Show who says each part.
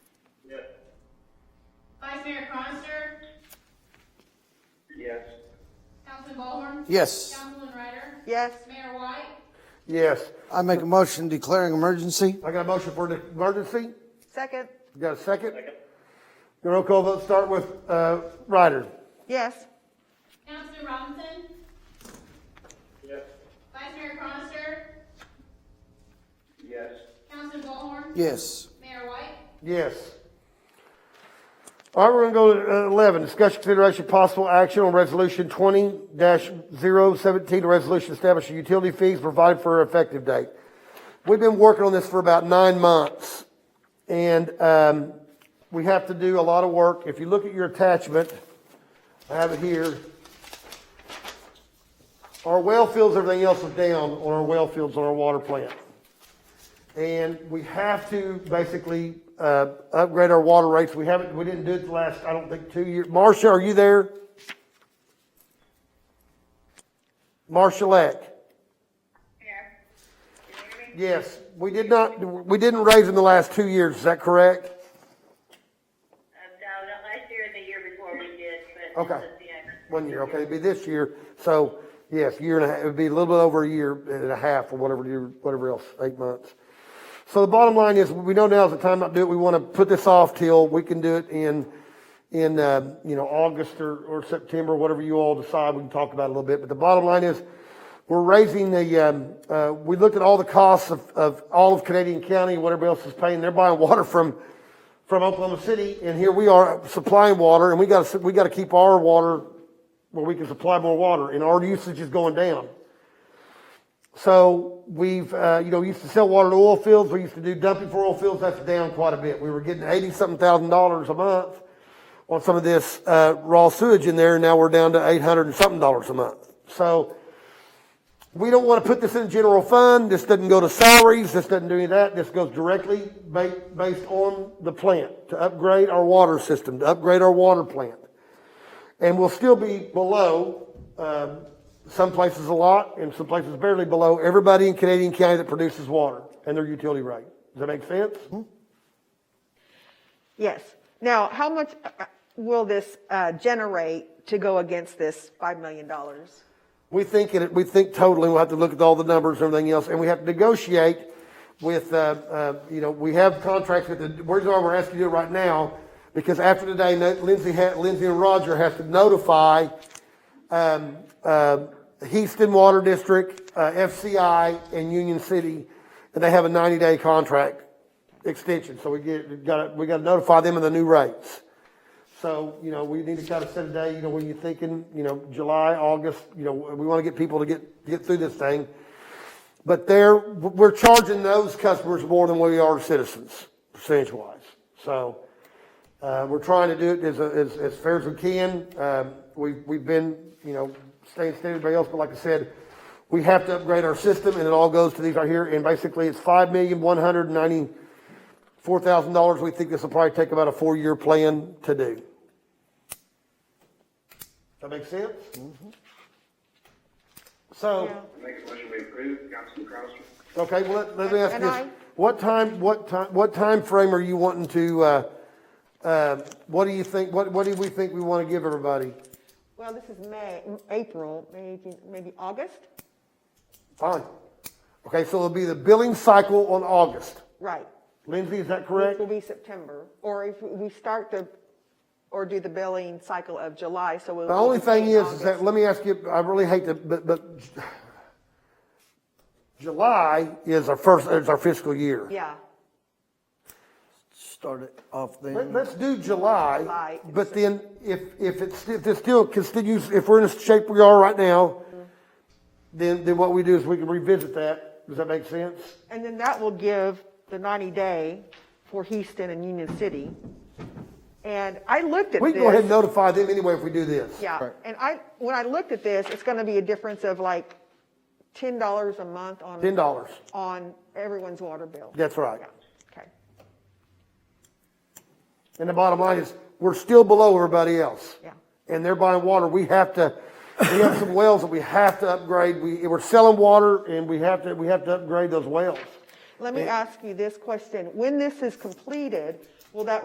Speaker 1: Vice Mayor Cronister,
Speaker 2: Yes.
Speaker 1: Councilman Ballhorn,
Speaker 3: Yes.
Speaker 1: Councilman Ryder,
Speaker 4: yes,
Speaker 1: Mayor White,
Speaker 5: Yes.
Speaker 3: I make a motion declaring emergency?
Speaker 5: I got a motion for the emergency.
Speaker 4: second,
Speaker 5: You got a second? The roll call vote start with, uh, Ryder.
Speaker 4: yes,
Speaker 1: Councilman Robinson,
Speaker 2: Yes.
Speaker 1: Vice Mayor Cronister,
Speaker 2: Yes.
Speaker 1: Councilman Ballhorn,
Speaker 3: Yes.
Speaker 1: Mayor White,
Speaker 5: Yes. All right, we're gonna go to uh, eleven, discussion consideration possible action on resolution twenty 17 a resolution establishing utility fees provided for effective date. We've been working on this for about nine months, and, um, we have to do a lot of work. If you look at your attachment, I have it here. Our well fields, everything else was down on our well fields on our water plant. And we have to basically, uh, upgrade our water rates. We haven't, we didn't do it the last, I don't think, two years. Marcia, are you there? Marcia Lack? Yes, we did not, we didn't raise them the last two years, is that correct?
Speaker 6: Uh, No, not last year and the year before we did, but
Speaker 5: Okay.
Speaker 6: this is the end.
Speaker 5: One year, okay, it'd be this year, so, yes, year and a half, it'd be a little bit over a year and a half or whatever, year, whatever else, eight months. So the bottom line is, we know now is the time not to do it, we wanna put this off till we can do it in, in, uh, you know, August or, or September, whatever you all decide, we can talk about it a little bit, but the bottom line is, we're raising the, um, uh, we looked at all the costs of, of all of Canadian County, what everybody else is paying, they're buying water from, from Oklahoma City, and here we are supplying water, and we gotta, we gotta keep our water where we can supply more water, and our usage is going down. So we've, uh, you know, we used to sell water to oil fields, we used to do dumping for oil fields, that's down quite a bit. We were getting eighty-something thousand dollars a month on some of this, uh, raw sewage in there, and now we're down to eight hundred and something dollars a month. So we don't want to put this in general fund, this doesn't go to salaries, this doesn't do any of that, this goes directly ba- based on the plant, to upgrade our water system, to upgrade our water plant and we'll still be below, um, some places a lot and some places barely below everybody in Canadian County that produces water and their utility rate. Does that make sense?
Speaker 4: yes. Now, how much uh, will this uh, generate to go against this $5 million?
Speaker 5: We think it, we think totally, we'll have to look at all the numbers and everything else, and we have to negotiate with, uh, uh, you know, we have contracts with the, where's our, we're asking you right now, because after today, no- Lindsay, ha- Lindsay and Roger have to notify, um, uh, Houston Water District, uh, FCI, and Union City, and they have a ninety-day contract extension, so we get, we gotta, we gotta notify them of the new rates. So, you know, we need to kind of set a day, you know, when you're thinking, you know, July, August, you know, we want to get people to get, get through this thing. But they're, we're charging those customers more than we are citizens, percentage wise. So, uh, we're trying to do it as, as, as fair as we can. Um, we've, we've been, you know, staying steady with everybody else, but like I said, we have to upgrade our system and it all goes to these right here. And basically it's five million, one hundred and ninety-four thousand dollars. We think this will probably take about a four-year plan to do. That make sense? So,
Speaker 2: Make a motion we approve, Councilman Cronister.
Speaker 5: okay, well, let- let me ask
Speaker 4: And
Speaker 5: you
Speaker 4: I-
Speaker 5: this. What time, what time, what time frame are you wanting to, uh, uh, what do you think, what, what do we think we want to give everybody?
Speaker 4: Well, this is May, April, maybe, maybe August?
Speaker 5: Fine. Okay, so it'll be the billing cycle on August.
Speaker 4: Right.
Speaker 5: Lindsay, is that
Speaker 4: Which
Speaker 5: correct?
Speaker 4: will be September, or if we start the, or do the billing cycle of July, so we'll.
Speaker 5: The only
Speaker 4: we'll be
Speaker 5: thing
Speaker 4: in
Speaker 5: is, is that,
Speaker 4: August.
Speaker 5: let me ask you, I really hate to, but, but July is our first, is our fiscal year.
Speaker 4: Yeah,
Speaker 3: Start it off
Speaker 5: Let,
Speaker 3: then.
Speaker 5: let's do July,
Speaker 4: July.
Speaker 5: but then if, if it's, if it still continues, if we're in the shape we are right now, then, then what we do is we can revisit that. Does that make sense?
Speaker 4: and then that will give the 90-day for Houston and Union City. And I looked at this.
Speaker 5: We can go ahead and notify them anyway if we do this.
Speaker 4: Yeah, and I, when I looked at this, it's gonna be a difference of like ten dollars a month on.
Speaker 5: Ten dollars.
Speaker 4: On everyone's water bill.
Speaker 5: That's right.
Speaker 4: Yeah, okay,
Speaker 5: And the bottom line is, we're still below everybody else.
Speaker 4: Yeah.
Speaker 5: And they're buying water. We have to, we have some wells that we have to upgrade. We, we're selling water and we have to, we have to upgrade those wells.
Speaker 4: let me ask you this question, when this is completed, will that